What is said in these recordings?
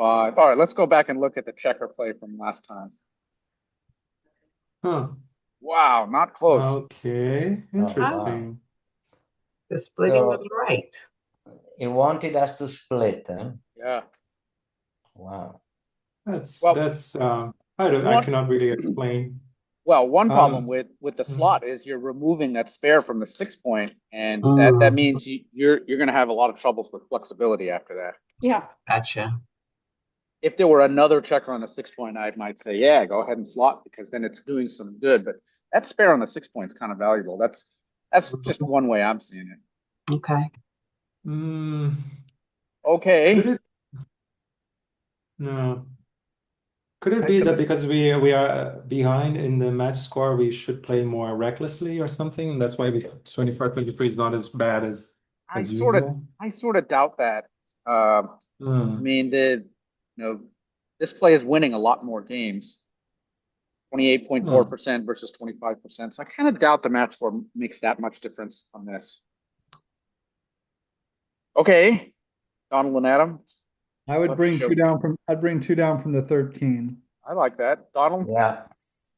Five, all right, let's go back and look at the checker play from last time. Huh. Wow, not close. Uh, Okay. wow. Interesting. The splitting So- was right. He wanted us to split, huh? Yeah, Wow. That's uh, Well- that's. Um, I don't. I What- cannot really explain. well, one problem Um, with, with the mhm. slot is you're removing that spare from the six point, and that, that Mm. means you, you're, you're gonna have a lot of troubles with flexibility after that. Yeah, Gotcha. If there were another checker on the six point, I might say, yeah, go ahead and slot, because then it's doing some good, but that spare on the six point is kind of valuable. That's, that's just Mm-hmm. one way I'm seeing it. Okay. Mm, Okay. could it? No. Could it I be can that s- because we we are uh, behind in the match score, we should play more recklessly or something? and That's why we 24 23 is not as bad as I as sort of, usual. I sort of doubt that. Um, I Hmm. mean, the, you know, this play is winning a lot more games. Twenty-eight point four percent versus twenty-five percent, so I kind of doubt the match form makes that much difference on this. Okay, Donald and Adam, I would Let's bring show- two down from, I'd bring two down from the thirteen. I like that. Donald, Yeah.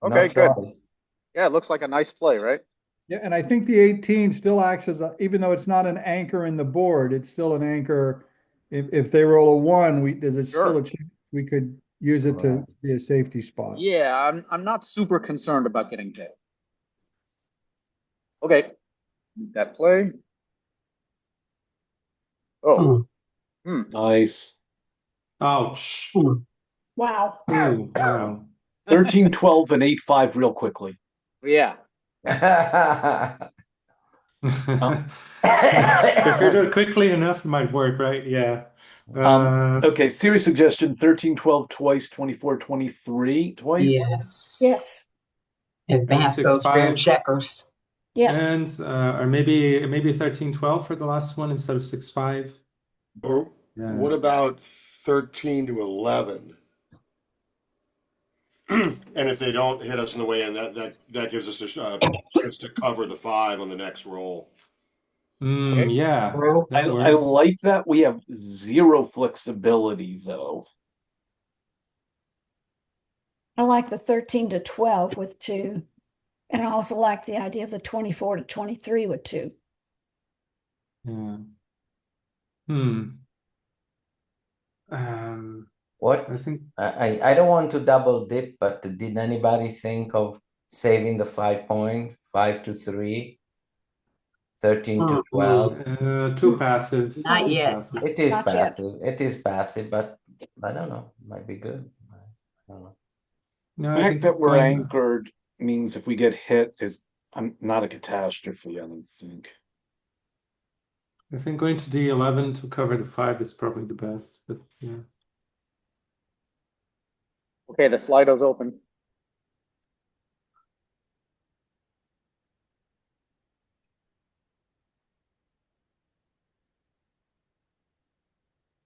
No okay, good. choice. Yeah, it looks like a nice play, right? Yeah, and I think the eighteen still acts as, a- even though it's not an anchor in the board, it's still an anchor. If, if they roll a one, we, there's a- still Sure. a, chance we could use it to Right. be a safety spot. Yeah, I'm, I'm not super concerned about getting hit. Okay, that play. Oh, Nice. Ouch. Hmm. wow. Ooh, wow. 13, 12, and 8, 5 real quickly. yeah, Um. If you do it quickly enough, it might work, right? Yeah. Um, Uh, Okay, serious suggestion 13, 12 twice, 24, 23 twice. Yes. Yes, Advance Six, those rear five. checkers. yes. and uh, or maybe maybe 13 12 for the last one instead of 6 5. Or Yeah. what about 13 to 11? and if they don't hit us in the way in, that that, that gives us a sh- uh, chance to cover the five on the next roll. Mm, Okay. yeah. Roll. I, That I works. like that we have zero flexibility, though. I like the thirteen to twelve with two. And I also like the idea of the twenty-four to twenty-three with two. Yeah. Hmm. Um, What? I think I, I I don't want to double dip, but did anybody think of saving the five point, five to three, 13 to Mm-hmm. Mm-mm. 12? uh, too passive. Not too yet. passive. It is Not yet. passive. It is passive, but I don't know. Might be good. I don't know. No, The I fact think that we're going- anchored means if we get hit is I'm not a catastrophe, I don't think. I think going to D11 to cover the 5 is probably the best, but yeah. okay, the Slido's open.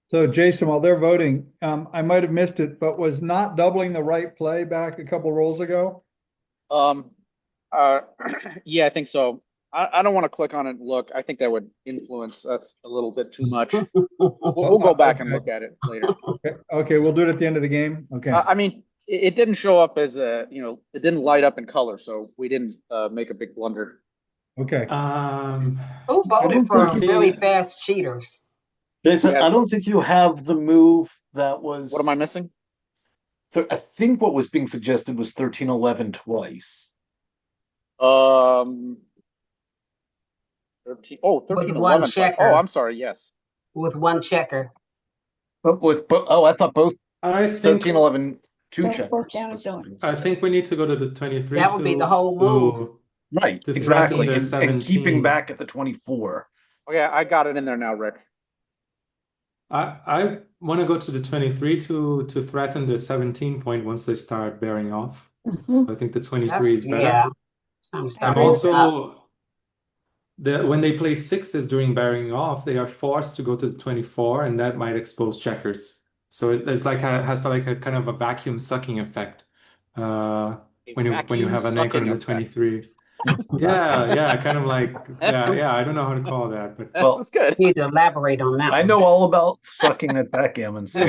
So Jason, while they're voting, um, I might have missed it, but was not doubling the right play back a couple rolls ago? Um, uh, yeah, I think so. I, I don't want to click on it and look. I think that would influence us a little bit too much. We'll, we'll go back and look at it later. Okay, okay, we'll do it at the end of the game. Okay. I, I mean, it, it didn't show up as a, you know, it didn't light up in color, so we didn't, uh, make a big blunder. Okay. Um, Who voted don't for think he- really fast cheaters? Jason, Yeah. I don't think you have the move that was. What am I missing? th- I think what was being suggested was 13, 11 twice. Um, 13 oh, 13, one 11 twice. Oh, checker. I'm sorry, yes. With one checker. But with, but, oh, I thought both I think 13, 11, two Both- both checkers. down and was what's done. being I think suggested. we need to go to the 23 That would be the to- whole move. to- Right, to exactly. threaten And, their 17. and keeping back at the 24. Okay, I got it in there now, Rick. I I want to go to the 23 to to threaten the 17 point once they start bearing off. Mm-hmm. So I think the 23 That's- is better. Yeah. Uh, Some And stuff. also, the when they play sixes during bearing off, they are forced to go to the 24, and that might expose checkers. So it, it's like a, has like a kind of a vacuum sucking effect uh, when you when you have an anchor in the 23. Yeah, yeah, kind of like yeah, yeah. I don't know how to call that, but That's Well- that's good. Need to elaborate on that. I one. know all about sucking at backgammon, so.